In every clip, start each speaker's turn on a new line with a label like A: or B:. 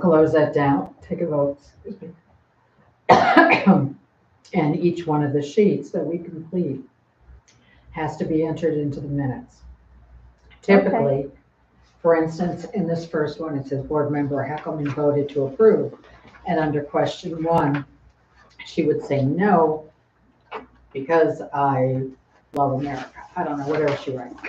A: Close that down, take a vote. excuse me. And each one of the sheets that we complete has to be entered into the minutes.
B: Okay.
A: Typically, for instance, in this first one, it says board member Heckelman voted to approve. And under question one, she would say no because I love America. I don't know, whatever she writes.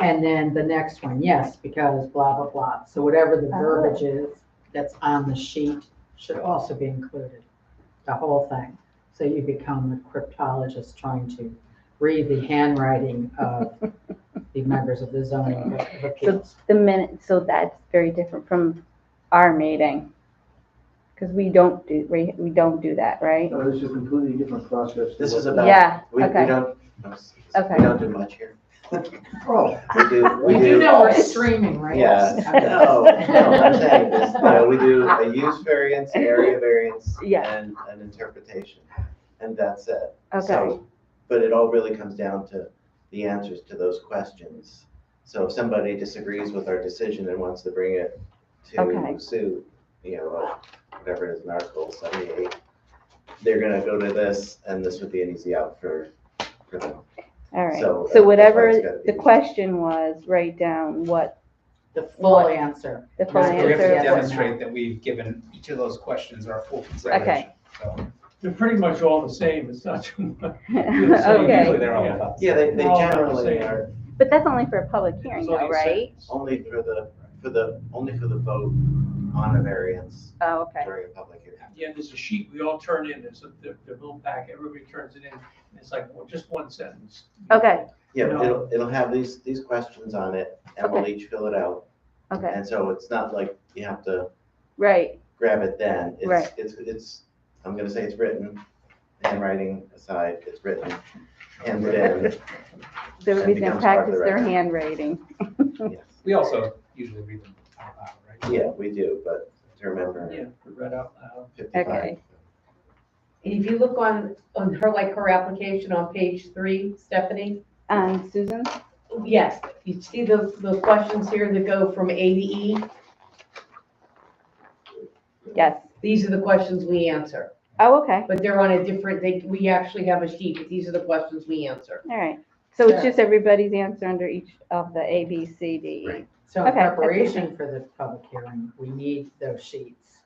A: And then the next one, yes, because blah, blah, blah. So whatever the
B: Oh.
A: verbiage is that's on the sheet should also be included, the whole thing. So you become a cryptologist trying to read the handwriting of the members of the zoning board of appeals.
B: The minute, so that's very different from our meeting. Because we don't do, we, we don't do that, right?
C: No, this is a completely different process.
D: This is about,
B: Yeah,
D: we, we
B: okay,
D: don't, no,
B: Okay.
D: we don't do much here.
C: Oh,
D: We do, we
A: We
D: do.
A: do know we're streaming, right?
D: Yeah, no, no, I'm saying this, you know, we do a use variance, area variance,
B: Yeah.
D: and an interpretation, and that's it.
B: okay.
D: So, But it all really comes down to the answers to those questions. So if somebody disagrees with our decision and wants to bring it
B: Okay.
D: to sue, you know, whatever it is in Article seventy-eight, they're gonna go to this, and this would be an easy out for, for them.
B: All right.
D: So, uh,
B: So
D: that's
B: whatever
D: gotta be-
B: the question was, write down what
A: The full answer.
B: the
A: Yeah,
B: full
A: Right,
E: We have
B: answer
E: to
A: yeah.
B: was.
E: demonstrate that we've given each of those questions our full consideration. So,
F: They're pretty much all the same, it's not too much.
B: Okay,
E: Usually they're all about.
D: Yeah, they, they
F: We're all about the
D: generally
F: same.
D: are,
B: but that's only for a public hearing
F: It's only
B: though, right?
F: sentence.
D: only for the, for the, only for the vote on a variance
B: Oh, okay,
D: during a public hearing.
F: At the end, there's a sheet we all turn in, there's a, the, the little pack, everybody turns it in, and it's like, well, just one sentence.
B: Okay.
D: Yeah,
F: No.
D: it'll, it'll have these, these questions on it, and we'll each fill it out.
B: okay,
D: And so it's not like you have to
B: right,
D: grab it then. It's-
B: Right.
D: It's, it's, I'm gonna say it's written, handwriting aside, it's written. And then,
B: they're
D: That
B: going to
D: becomes part
B: practice
D: of the
B: their
D: record.
B: handwriting.
D: yes,
E: We also usually read them out loud, right?
D: yeah, we do, but to remember
F: Yeah, read out loud.
D: fifty-five.
B: Okay.
G: And if you look on, on her, like her application on page three, Stephanie,
B: Um, Susan?
G: yes, you see the, the questions here that go from A to E?
B: Yes.
G: These are the questions we answer,
B: Oh, okay,
G: but they're on a different, they, we actually have a sheet, but these are the questions we answer.
B: all right. So it's
G: Yeah.
B: just everybody's answer under each of the A, B, C, D, E.
D: Right.
A: So in
B: Okay, that's
A: preparation for the public hearing, we need those sheets.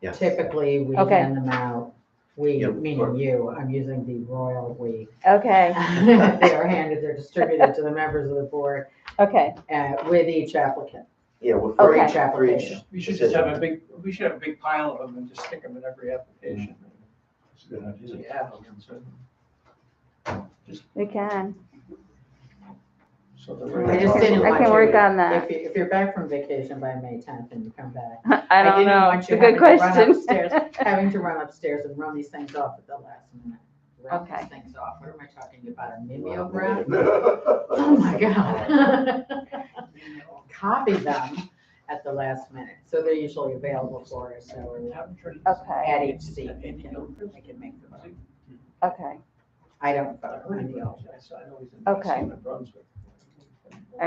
D: Yes.
A: Typically, we
B: Okay.
A: hand them out, we,
D: Yeah,
A: meaning
D: or-
A: you, I'm using the royal we. They
B: Okay,
A: are handed, they're distributed to the members of the board
B: okay,
A: uh, with each applicant.
D: Yeah, well, for
B: Okay.
D: each, for each.
A: Application.
F: We should just have a big, we should have a big pile of them and just stick them in every application.
C: That's a good idea.
F: So you have them, so-
B: we can.
F: So the.
B: I
A: I just didn't
B: can- I
A: want
B: can
A: you-
B: work on that.
A: If you, if you're back from vacation by May tenth and you come back,
B: I don't
A: didn't
B: know,
A: want
B: it's
A: you
B: a good
A: having to run
B: question.
A: upstairs. having to run upstairs and run these things off at the last minute. Run these
B: Okay.
A: things off, what am I talking about, a mimeograph? Oh, my
D: Oh
A: God. Copy them at the last minute, so they're usually available for us, so we're not
B: Okay,
A: at each seat. we can- we can make them up.
B: okay,
A: I don't vote, I'm the alternate.
B: Okay. all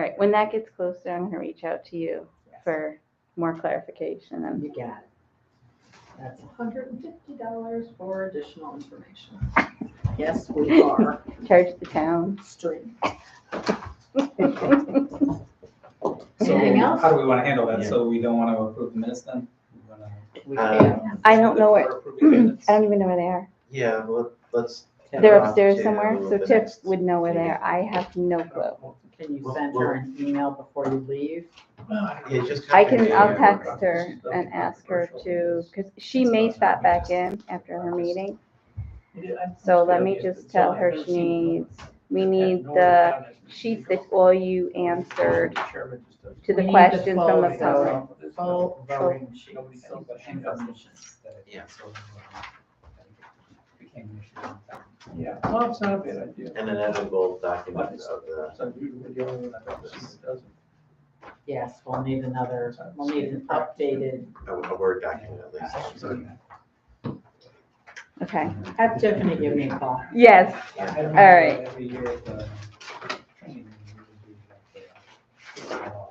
B: right, when that gets closer, I'm gonna reach out to you for more clarification and,
A: You got it. That's hundred and fifty dollars for additional information. Yes, we are
B: charge the town.
A: streaming.
E: So
A: Anything else?
E: how do we want to handle that?
D: Yeah.
E: So we don't want to approve the minutes then? We wanna-
A: We
D: Uh,
A: can't,
B: I don't know where-
E: We're approving minutes.
B: I don't even know where they are.
D: Yeah, well, let's.
B: They're
D: Yeah.
B: upstairs
D: To
B: somewhere, so
D: the
B: Tiff
D: next
B: would know where they are. I have no clue.
A: can you send her an email before you leave?
D: Yeah, just.
B: I
D: copy
B: can,
D: the,
B: I'll
D: uh,
B: text her and ask her to, because she may stop back in after her meeting. So let me just tell her she needs, we need the sheets that all you answered
A: We
B: to the
A: need
B: questions from the
A: full
B: public.
A: voting- Full voting sheet.
E: Nobody has any questions.
A: Information.
D: Yeah.
E: So, um, Became an issue.
F: Yeah, well, it's not a bad idea.
D: And an editable document of the,
F: So usually the only one that does it doesn't.
A: Yes, we'll need another, we'll need an updated
D: a a Word document at least.
E: So,
B: Okay,
A: Have Tiffany give me a call.
B: yes,
D: Yeah.
E: All
B: right.
E: Every year at the training, we would do that for, uh,